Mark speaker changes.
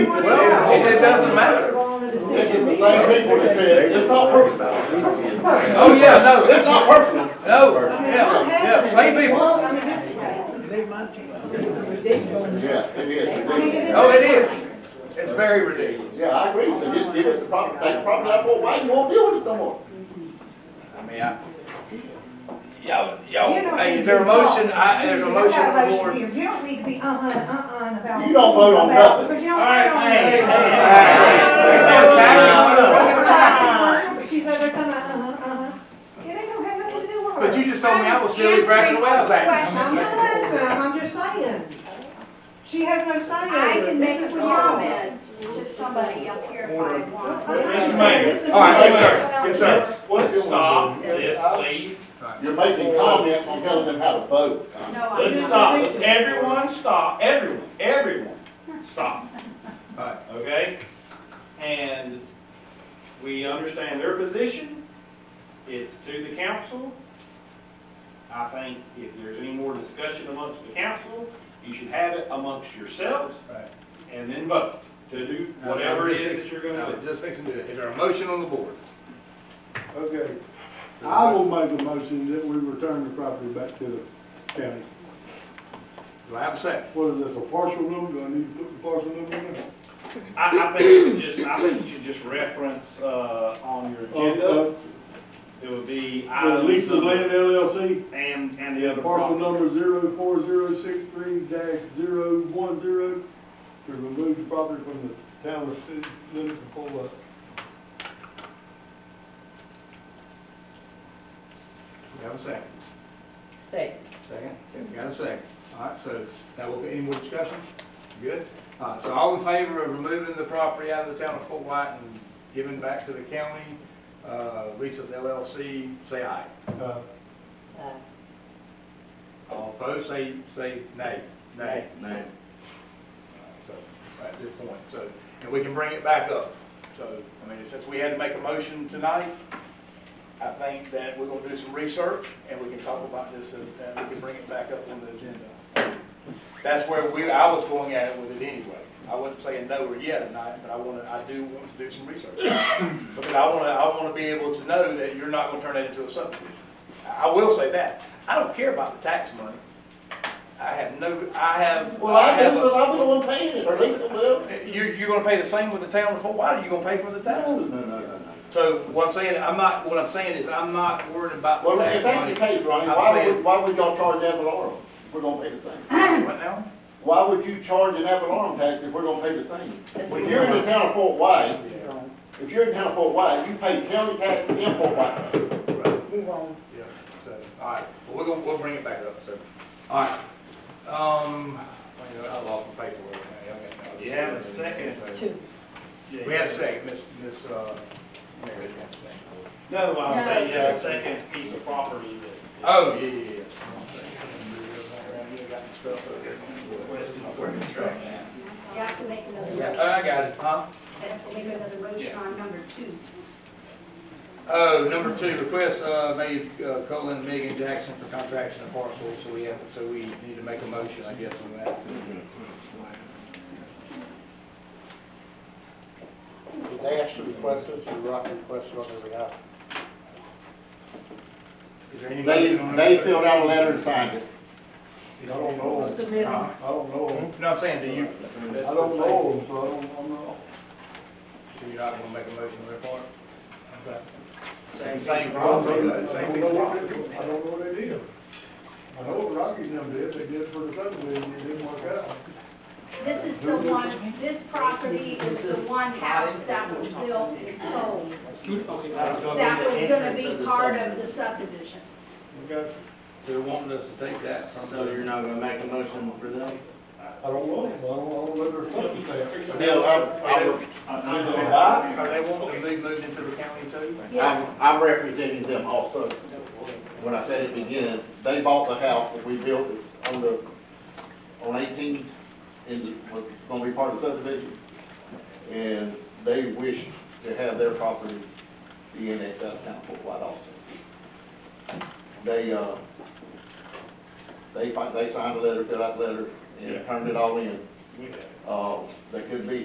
Speaker 1: It doesn't matter.
Speaker 2: This is the same people that said, it's not personal.
Speaker 1: Oh, yeah, no,
Speaker 2: It's
Speaker 1: this,
Speaker 2: not personal.
Speaker 1: no, yeah, yeah, same people.
Speaker 3: I mean, this is-
Speaker 2: Yes, it is.
Speaker 3: I mean,
Speaker 1: Oh, it is. It's very ridiculous.
Speaker 2: Yeah, I agree, so just give us the property, take the property out, well, why you won't deal with us no more?
Speaker 1: I mean, I, y'all, y'all,
Speaker 3: You don't
Speaker 1: hey,
Speaker 3: need
Speaker 1: is there a
Speaker 3: to talk.
Speaker 1: motion? I, there's a
Speaker 3: You got
Speaker 1: motion on the
Speaker 3: motion
Speaker 1: board.
Speaker 3: here. You don't need to be uh-uh, uh-uh about.
Speaker 2: You don't vote on
Speaker 3: about-
Speaker 2: nothing.
Speaker 3: Because you don't.
Speaker 1: All right,
Speaker 3: vote on
Speaker 1: hey,
Speaker 3: nothing.
Speaker 1: hey, hey, hey. We're
Speaker 3: We're talking commercial,
Speaker 1: talking
Speaker 3: we're talking commercial, but She's over there talking, about, uh-huh, uh-huh. It ain't gonna have nothing to do with her.
Speaker 1: But you just told me I was silly
Speaker 3: I'm just
Speaker 1: cracking the
Speaker 3: answering
Speaker 1: wells
Speaker 3: her
Speaker 1: at.
Speaker 3: question. I'm not answering, I'm just saying. She has no say.
Speaker 4: I
Speaker 3: over it.
Speaker 4: can
Speaker 3: This
Speaker 4: make a
Speaker 3: is what y'all-
Speaker 4: comment to somebody up here if I want.
Speaker 3: This is
Speaker 2: Mayor.
Speaker 3: this is-
Speaker 1: All right, yes, sir.
Speaker 4: Yes,
Speaker 5: Let's stop this, please.
Speaker 2: You're making comments on telling them how to vote.
Speaker 4: No, I'm
Speaker 5: Let's
Speaker 4: not.
Speaker 5: stop. Let's everyone stop. Everyone, everyone, stop.
Speaker 1: Alright.
Speaker 5: Okay? And we understand their position. It's to the council. I think if there's any more discussion amongst the council, you should have it amongst yourselves
Speaker 1: Right.
Speaker 5: and then vote to do whatever it is that you're
Speaker 1: No,
Speaker 5: gonna do.
Speaker 1: Just fixing to do it. Is there a motion on the board?
Speaker 6: Okay, I will make a motion that we return the property back to the county.
Speaker 1: Do I have a second?
Speaker 6: What is this, a partial number, do I need to put the partial number in there?
Speaker 5: I, I think you should just, I think you should just reference, uh, on your
Speaker 1: Oh,
Speaker 6: Uh,
Speaker 5: agenda.
Speaker 6: uh,
Speaker 5: It would be
Speaker 6: uh,
Speaker 5: items.
Speaker 6: Lisa's
Speaker 5: number-
Speaker 6: Land LLC,
Speaker 5: And, and the other
Speaker 6: parcel
Speaker 5: property.
Speaker 6: number zero four zero six three dash zero one zero, to remove the property from the town of city limits and pull up.
Speaker 1: Do I have a second?
Speaker 7: Say,
Speaker 1: Second? Okay, we got a second. All right, so that will be, any more discussion? Good? All right, so all in favor of removing the property out of the town of Fort White and giving back to the county, uh, Lisa's LLC, say aye.
Speaker 6: Uh,
Speaker 7: uh,
Speaker 1: All opposed, say, say nay. Nay. Nay. So, at this point, so, and we can bring it back up. So, I mean, since we had to make a motion tonight, I think that we're gonna do some research, and we can talk about this, and and we can bring it back up on the agenda. That's where we, I was going at it with it anyway. I wasn't saying no or yeah tonight, but I wanna, I do want to do some research. Because I wanna, I wanna be able to know that you're not gonna turn it into a subdivision. I will say that, I don't care about the tax money. I have no, I have.
Speaker 2: Well, I
Speaker 1: have
Speaker 2: do,
Speaker 1: a-
Speaker 2: but I'm the one paying it, or Lisa will.
Speaker 1: you, you're gonna pay the same with the town of Fort White, or you gonna pay for the taxes?
Speaker 2: no, no, no.
Speaker 1: So what I'm saying, I'm not, what I'm saying is I'm not worried about the
Speaker 2: Well, if
Speaker 1: tax
Speaker 2: that's the
Speaker 1: money.
Speaker 2: case, Ronnie,
Speaker 1: I'm
Speaker 2: why would,
Speaker 1: saying-
Speaker 2: why would y'all charge ad valorem? We're gonna pay the same.
Speaker 1: What now?
Speaker 2: Why would you charge an ad valorem tax if we're gonna pay the same? When you're in the town of Fort White, if you're in the town of Fort White, you pay county tax and Fort White tax.
Speaker 7: move on.
Speaker 1: Yeah, so, all right, well, we're gonna, we'll bring it back up, so, all right. Um, I know, I lost my paperwork. now, y'all got-
Speaker 5: You have a second.
Speaker 7: Two.
Speaker 1: We had a second, Miss, Miss, uh. Mary.
Speaker 5: No, I'm saying,
Speaker 1: No.
Speaker 5: yeah, the second piece of property that.
Speaker 1: Oh, yeah, yeah, yeah.
Speaker 4: You have to make another
Speaker 1: Oh,
Speaker 4: motion.
Speaker 1: I got it, huh?
Speaker 4: You have to make another motion on number two.
Speaker 1: Oh, number two, request, uh, made, uh, Colin, Megan Jackson for contraction of parcels, so we have, so we need to make a motion, I guess, on that.
Speaker 8: Did they actually request this, or Rock requested on their behalf?
Speaker 1: Is there any
Speaker 2: They,
Speaker 1: motion on number
Speaker 2: they
Speaker 1: two?
Speaker 2: filled out a letter and signed it.
Speaker 6: I don't know,
Speaker 7: The middle.
Speaker 6: I don't know,
Speaker 1: No, I'm saying, do you,
Speaker 6: I don't know, so I don't, I'm not.
Speaker 1: so you're not gonna make a motion on their part? Same,
Speaker 6: I
Speaker 1: same
Speaker 6: don't
Speaker 1: property,
Speaker 6: know,
Speaker 1: though,
Speaker 6: I
Speaker 1: same
Speaker 6: don't know
Speaker 1: people.
Speaker 6: what they- I don't know what they did. I know what Rocky and them did, they did for the subdivision, it didn't work out.
Speaker 4: This is the one, this property is the one house that was built and sold. That was gonna be part of the subdivision.
Speaker 6: We got,
Speaker 1: So they're wanting us to take that from
Speaker 8: So you're
Speaker 1: the,
Speaker 8: not gonna make a motion for them?
Speaker 6: I don't know, I don't know whether it's something there.
Speaker 2: Bill, I'm, I'm,
Speaker 6: Why?
Speaker 1: are they wanting to be moved into the county too?
Speaker 2: I'm,
Speaker 4: Yes.
Speaker 2: I'm representing them also. When I said at the beginning, they bought the house that we built it's on the, on eighteen, is, was gonna be part of the subdivision. And they wish to have their property be in that downtown Fort White also. They, uh, they, fi- they signed a letter, filled out a letter, and turned it all in. Uh, they could be